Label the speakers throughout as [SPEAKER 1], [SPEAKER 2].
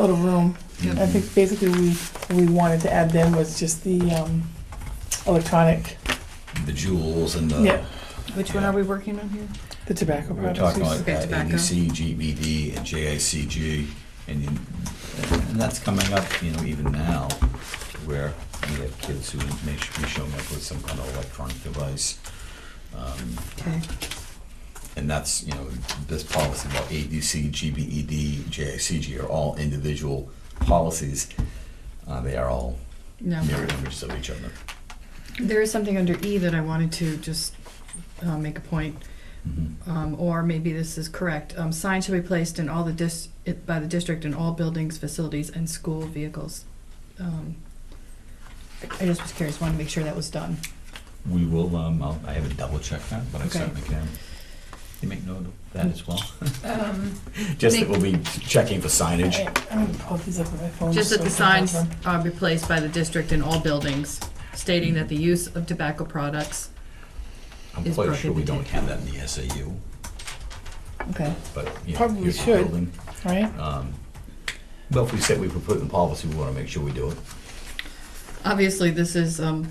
[SPEAKER 1] little room. I think basically we, we wanted to add then was just the um, electronic,
[SPEAKER 2] The jewels and the,
[SPEAKER 1] Yeah.
[SPEAKER 3] Which one are we working on here?
[SPEAKER 1] the tobacco
[SPEAKER 2] we were
[SPEAKER 1] products.
[SPEAKER 2] talking about uh, E
[SPEAKER 3] Okay,
[SPEAKER 2] that,
[SPEAKER 3] tobacco.
[SPEAKER 2] NEC, GBD, and JICG, and, you- and that's coming up, you know, even now, where we have kids who may should be showing up with some kind of electronic device. Um,
[SPEAKER 3] Okay.
[SPEAKER 2] And that's, you know, this policy about ADC, GBED, JICG are all individual policies. Uh, They are all
[SPEAKER 3] No.
[SPEAKER 2] mirror images of each other.
[SPEAKER 3] There is something under E that I wanted to just uh, make a point,
[SPEAKER 2] Mhm.
[SPEAKER 3] um, or maybe this is correct. Um, Signs shall be placed in all the dis, it- by the district in all buildings, facilities, and school vehicles. Um, I I just was curious, wanted to make sure that was done.
[SPEAKER 2] We will, um, I'll, I haven't double checked that, but I
[SPEAKER 3] Okay.
[SPEAKER 2] certainly can. You make note of that as well.
[SPEAKER 4] Um,
[SPEAKER 2] Just that we'll be checking for signage.
[SPEAKER 1] I- I'm gonna pull these up on my phone.
[SPEAKER 3] Just that
[SPEAKER 1] so
[SPEAKER 3] the
[SPEAKER 1] I can have
[SPEAKER 3] signs
[SPEAKER 1] them.
[SPEAKER 3] are replaced by the district in all buildings, stating that the use of tobacco products.
[SPEAKER 2] I'm
[SPEAKER 3] Is
[SPEAKER 2] quite sure we
[SPEAKER 3] prohibited.
[SPEAKER 2] don't have that in the SAU,
[SPEAKER 3] Okay.
[SPEAKER 2] but, you know,
[SPEAKER 1] Probably
[SPEAKER 2] here's the
[SPEAKER 1] should.
[SPEAKER 2] building.
[SPEAKER 1] Right?
[SPEAKER 2] Um, But if we said we would put it in policy, we wanna make sure we do it.
[SPEAKER 3] Obviously, this is, um,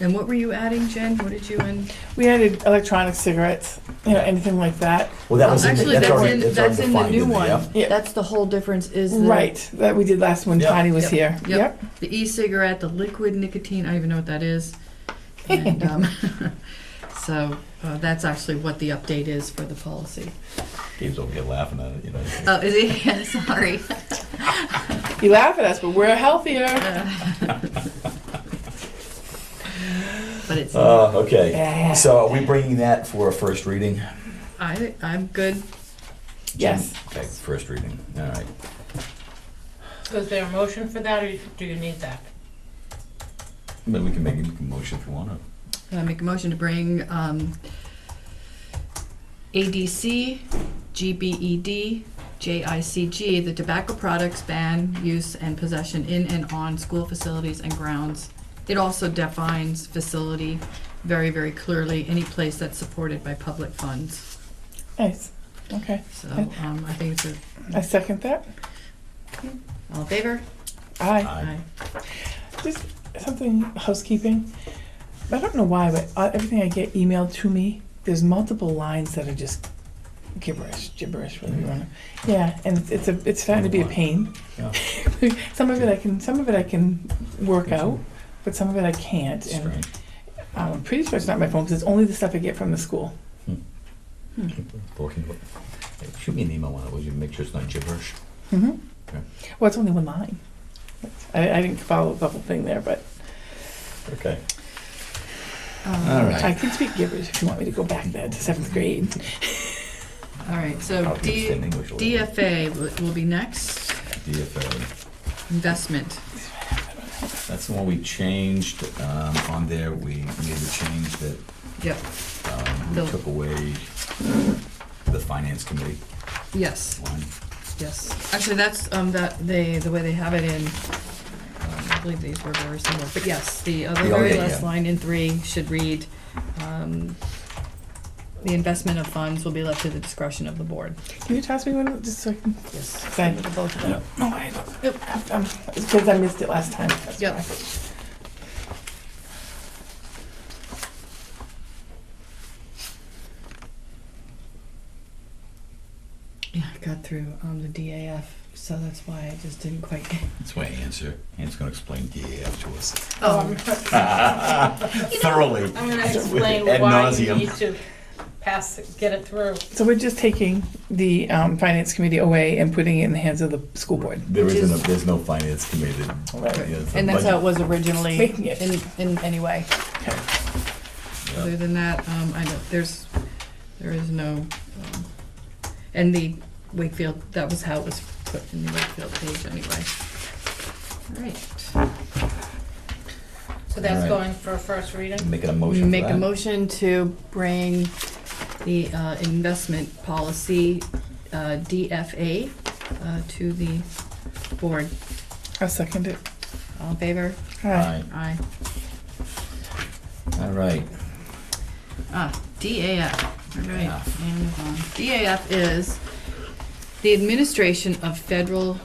[SPEAKER 3] and what were you adding, Jen? What did you and?
[SPEAKER 1] We added electronic cigarettes, you know, anything like that.
[SPEAKER 2] Well, that was in, the-
[SPEAKER 3] Actually,
[SPEAKER 2] that's
[SPEAKER 3] that's
[SPEAKER 2] already,
[SPEAKER 3] in,
[SPEAKER 2] that's already
[SPEAKER 3] that's in the
[SPEAKER 2] defined
[SPEAKER 3] new
[SPEAKER 2] in there.
[SPEAKER 3] one.
[SPEAKER 1] Yeah.
[SPEAKER 3] That's the whole difference is the.
[SPEAKER 1] Right, that we did last when
[SPEAKER 2] Yeah.
[SPEAKER 1] Connie was
[SPEAKER 3] Yep.
[SPEAKER 1] here.
[SPEAKER 3] Yep. The e-cigarette, the liquid nicotine, I don't even know what that is. And, um, so, uh, that's actually what the update is for the policy.
[SPEAKER 2] Dave's over here laughing at it, you know.
[SPEAKER 3] Oh, is it? Yeah, sorry.
[SPEAKER 1] You laugh at us, but we're healthier.
[SPEAKER 3] But it's,
[SPEAKER 2] Uh, okay,
[SPEAKER 1] Yeah.
[SPEAKER 2] so are we bringing that for a first reading?
[SPEAKER 3] I, I'm good.
[SPEAKER 1] Yes.
[SPEAKER 2] Okay, first reading, all right.
[SPEAKER 4] so is there a motion for that, or do you need that?
[SPEAKER 2] But we can make a motion if you wanna.
[SPEAKER 3] I make a motion to bring, um, ADC, E GBED, JICG, the tobacco products ban, use, and possession in and on school facilities and grounds. It also defines facility very, very clearly, any place that's supported by public funds.
[SPEAKER 1] Nice. Okay,
[SPEAKER 3] So, um, I think it's a,
[SPEAKER 1] I second that.
[SPEAKER 3] all in favor?
[SPEAKER 1] Aye.
[SPEAKER 2] Aye.
[SPEAKER 1] Just something housekeeping. I don't know why, but uh, everything I get emailed to me, there's multiple lines that are just gibberish, gibberish, whatever you want. to Yeah, and it's- it's a, it's starting to be a pain.
[SPEAKER 2] Yeah.
[SPEAKER 1] some of it I can, some of it I can work out, but some of it I can't.
[SPEAKER 2] It's
[SPEAKER 1] And
[SPEAKER 2] strange.
[SPEAKER 1] um, I'm pretty sure it's not my phone because it's only the stuff I get from the school.
[SPEAKER 2] Working with- hey, Shoot me an email when I was you make sure it's not gibberish.
[SPEAKER 1] Mm-hmm.
[SPEAKER 2] Okay.
[SPEAKER 1] Well, it's only one line. I, I didn't follow the whole thing there, but
[SPEAKER 2] Okay.
[SPEAKER 3] Um,
[SPEAKER 2] All right.
[SPEAKER 1] I can speak gibberish if you want me to go back there to seventh grade.
[SPEAKER 3] All right, so
[SPEAKER 2] I'll
[SPEAKER 3] D,
[SPEAKER 2] understand English a little bit.
[SPEAKER 3] DFA will- will be next,
[SPEAKER 2] DFA.
[SPEAKER 3] investment.
[SPEAKER 2] That's the one we changed, um, on there, we made the change that,
[SPEAKER 3] Yep,
[SPEAKER 2] um, we
[SPEAKER 3] The-
[SPEAKER 2] took away the finance committee
[SPEAKER 3] yes.
[SPEAKER 2] line.
[SPEAKER 3] Yes, actually, that's, um, that, they, the way they have it in, um, I believe these were very similar, but yes, the other
[SPEAKER 2] Yeah,
[SPEAKER 3] very
[SPEAKER 2] yeah,
[SPEAKER 3] last
[SPEAKER 2] yeah.
[SPEAKER 3] line in three should read, um, the investment of funds will be left to the discretion of the board.
[SPEAKER 1] Can you toss me one just so I can?
[SPEAKER 3] Yes.
[SPEAKER 1] Same.
[SPEAKER 3] Look at both of them.
[SPEAKER 1] No, I don't. I'm- It's Um, because I missed it last time. that's
[SPEAKER 3] Yep.
[SPEAKER 1] why.
[SPEAKER 3] Yeah, I got through, um, the DAF, so that's why I just didn't quite.
[SPEAKER 2] That's why answer, Anne's gonna explain DAF to us
[SPEAKER 4] Um,
[SPEAKER 2] thoroughly.
[SPEAKER 4] I'm gonna
[SPEAKER 2] With
[SPEAKER 4] explain
[SPEAKER 2] ad
[SPEAKER 4] why you
[SPEAKER 2] nauseam.
[SPEAKER 4] need to pass, it- get it through.
[SPEAKER 1] So we're just taking the um, finance committee away and putting it in the hands of the school board.
[SPEAKER 2] There
[SPEAKER 3] Which
[SPEAKER 2] isn't,
[SPEAKER 3] is-
[SPEAKER 2] a- there's no finance committee. Yeah, it's a
[SPEAKER 3] And that's how it
[SPEAKER 2] budget.
[SPEAKER 3] was originally,
[SPEAKER 1] Making it.
[SPEAKER 3] in, in any way.
[SPEAKER 2] Yeah.
[SPEAKER 3] Other than that, um, I don't, there's, there is no, um, and the Wakefield, that was how it was put in the Wakefield page anyway. All right.
[SPEAKER 4] So that's
[SPEAKER 2] Alright.
[SPEAKER 4] going for a first reading?
[SPEAKER 2] Make it a
[SPEAKER 3] We
[SPEAKER 2] motion for
[SPEAKER 3] make a
[SPEAKER 2] that.
[SPEAKER 3] motion to bring the, uh, investment policy, uh, DFA, uh, to the board.
[SPEAKER 1] I'll second it.
[SPEAKER 3] All in favor?
[SPEAKER 1] Aye.
[SPEAKER 2] Aye.
[SPEAKER 3] Aye.
[SPEAKER 2] All right,
[SPEAKER 3] Ah, DAF, all right,
[SPEAKER 2] DAF.
[SPEAKER 3] Amazon. DAF is the administration of federal